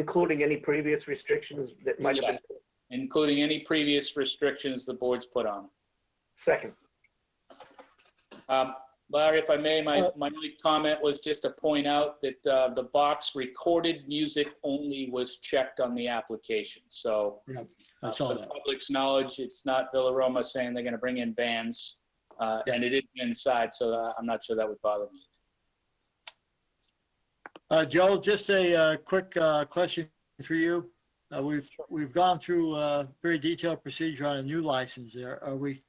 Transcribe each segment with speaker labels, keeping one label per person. Speaker 1: including any previous restrictions that might have been.
Speaker 2: including any previous restrictions the board's put on.
Speaker 1: Second,
Speaker 2: Um, Larry, if I may, my,
Speaker 3: Uh,
Speaker 2: my only comment was just to point out that uh, the box recorded music only was checked on the application. So
Speaker 3: I
Speaker 2: uh,
Speaker 3: saw
Speaker 2: for the
Speaker 3: that.
Speaker 2: public's knowledge, it's not Villaroma saying they're going to bring in bands. uh,
Speaker 3: Yeah.
Speaker 2: And it is inside, so uh, I'm not sure that would bother me.
Speaker 3: Uh, Joe, just a, uh, quick, uh, question for you. Uh, we've, we've gone through, uh, very detailed procedure on a new license there. Are we,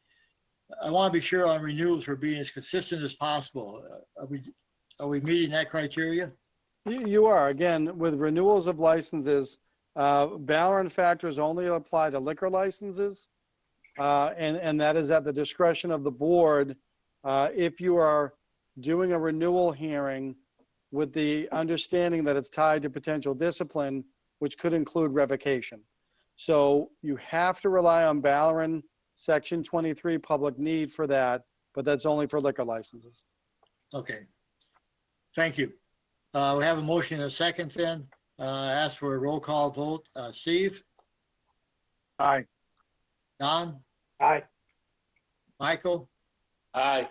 Speaker 3: I want to be sure on renewals we're being as consistent as possible. Uh, Are we, are we meeting that criteria?
Speaker 4: You, you are, again, with renewals of licenses, uh, Ballard factors only apply to liquor licenses. Uh, and, and that is at the discretion of the board. Uh, if you are doing a renewal hearing with the understanding that it's tied to potential discipline, which could include revocation. So you have to rely on Ballard, section 23, public need for that, but that's only for liquor licenses.
Speaker 3: Okay. Thank you. Uh, we have a motion and a second then. Uh, ask for a roll call vote. Uh, Steve?
Speaker 4: Aye.
Speaker 3: Don?
Speaker 1: aye,
Speaker 3: Michael?
Speaker 2: Aye,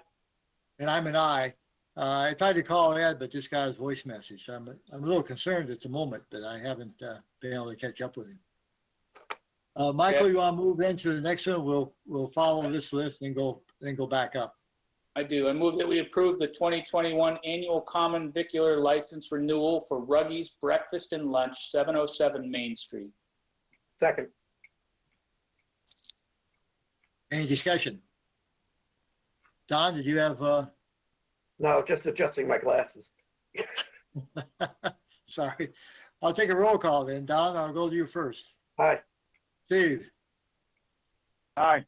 Speaker 3: And I'm an I. Uh, I tried to call Ed, but this guy's voice message. I'm, I'm a little concerned at the moment that I haven't, uh, been able to catch up with him. Uh, Michael,
Speaker 2: Okay.
Speaker 3: you want to move into the next one? We'll, we'll follow this list and go, then go back up.
Speaker 2: I do. I move that we approve the 2021 annual common vicular license renewal for Ruggies Breakfast and Lunch, 707 Main Street.
Speaker 1: second,
Speaker 3: Any discussion? Don, did you have, uh,
Speaker 1: no, just adjusting my glasses.
Speaker 3: Sorry. I'll take a roll call then. Don, I'll go to you first.
Speaker 1: Aye,
Speaker 3: Steve,
Speaker 4: Aye.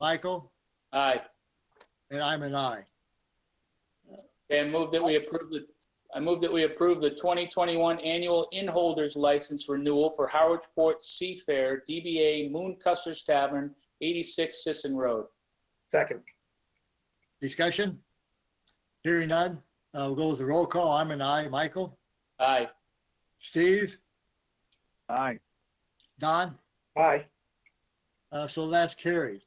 Speaker 3: Michael,
Speaker 2: Aye.
Speaker 3: and I'm an I.
Speaker 2: Okay, I move that we approve the, I move that we approve the 2021 annual inholders license renewal for Howard Port Seafair, DBA Moon Custer's Tavern, 86 Sisson Road.
Speaker 1: second,
Speaker 3: Discussion? Hearing none. Uh, we'll go with the roll call. I'm an I. Michael,
Speaker 2: Aye.
Speaker 3: Steve,
Speaker 4: Aye.
Speaker 3: Don.
Speaker 1: aye,
Speaker 3: Uh, so that's carried.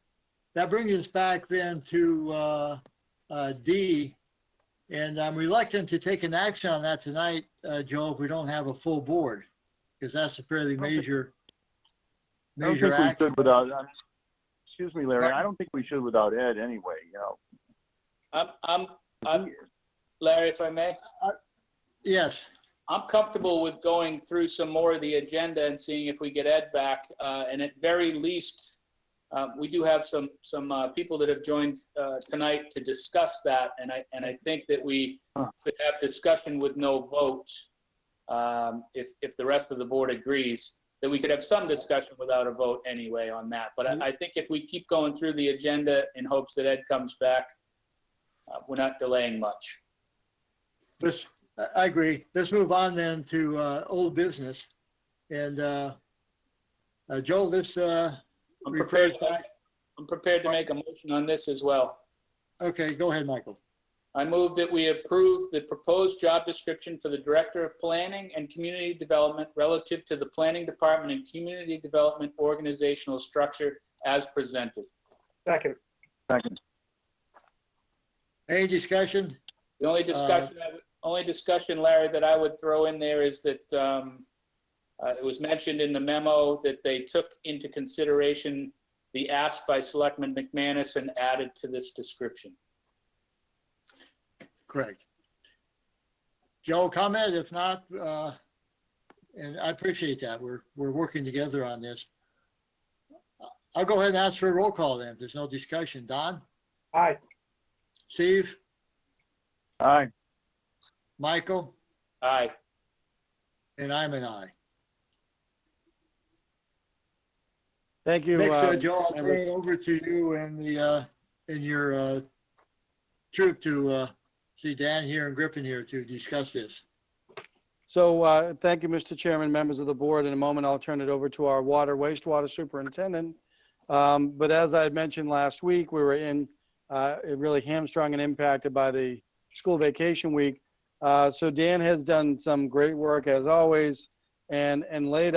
Speaker 3: That brings us back then to, uh, uh, D. And I'm reluctant to take an action on that tonight, uh, Joe, if we don't have a full board. Because that's a fairly
Speaker 5: Okay.
Speaker 3: major,
Speaker 5: I don't
Speaker 3: major
Speaker 5: think we
Speaker 3: action.
Speaker 5: should without, uh, excuse me, Larry,
Speaker 3: Pardon?
Speaker 5: I don't think we should without Ed anyway, you know.
Speaker 2: I'm, I'm, I'm, Larry, if I may,
Speaker 3: Yes.
Speaker 2: I'm comfortable with going through some more of the agenda and seeing if we get Ed back. Uh, and at very least, uh, we do have some, some, uh, people that have joined, uh, tonight to discuss that. And I, and I think that we
Speaker 5: Huh.
Speaker 2: could have discussion with no vote. Um, if, if the rest of the board agrees, that we could have some discussion without a vote anyway on that. But I, I think if we keep going through the agenda in hopes that Ed comes back, uh, we're not delaying much.
Speaker 3: Let's, I- I agree. Let's move on then to uh, old business. And uh, uh, Joel, this uh,
Speaker 2: I'm
Speaker 3: refers
Speaker 2: prepared,
Speaker 3: back,
Speaker 2: I'm prepared to make a motion on this as well.
Speaker 3: okay, go ahead, Michael.
Speaker 2: I move that we approve the proposed job description for the Director of Planning and Community Development relative to the Planning Department and Community Development organizational structure as presented.
Speaker 1: second,
Speaker 5: Second,
Speaker 3: Any discussion?
Speaker 2: The only discussion, I would- only discussion, Larry, that I would throw in there is that um, uh, it was mentioned in the memo that they took into consideration the ask by Selectman McManus and added to this description.
Speaker 3: Correct. Joel, comment? If not, uh, and I appreciate that. We're, we're working together on this. I'll go ahead and ask for a roll call then, if there's no discussion. Don,
Speaker 1: aye,
Speaker 3: Steve,
Speaker 5: aye,
Speaker 3: Michael?
Speaker 2: Aye.
Speaker 3: And I'm an I.
Speaker 4: Thank you.
Speaker 3: Next, uh,
Speaker 4: um,
Speaker 3: Joe, I'll turn
Speaker 4: members.
Speaker 3: it over to you and the, uh, and your, uh, troop to, uh, see Dan here and Griffin here to discuss this.
Speaker 4: So, uh, thank you, Mr. Chairman, members of the board. In a moment, I'll turn it over to our water wastewater superintendent. Um, But as I had mentioned last week, we were in, uh, it really hamstrung and impacted by the school vacation week. Uh, So Dan has done some great work as always and, and laid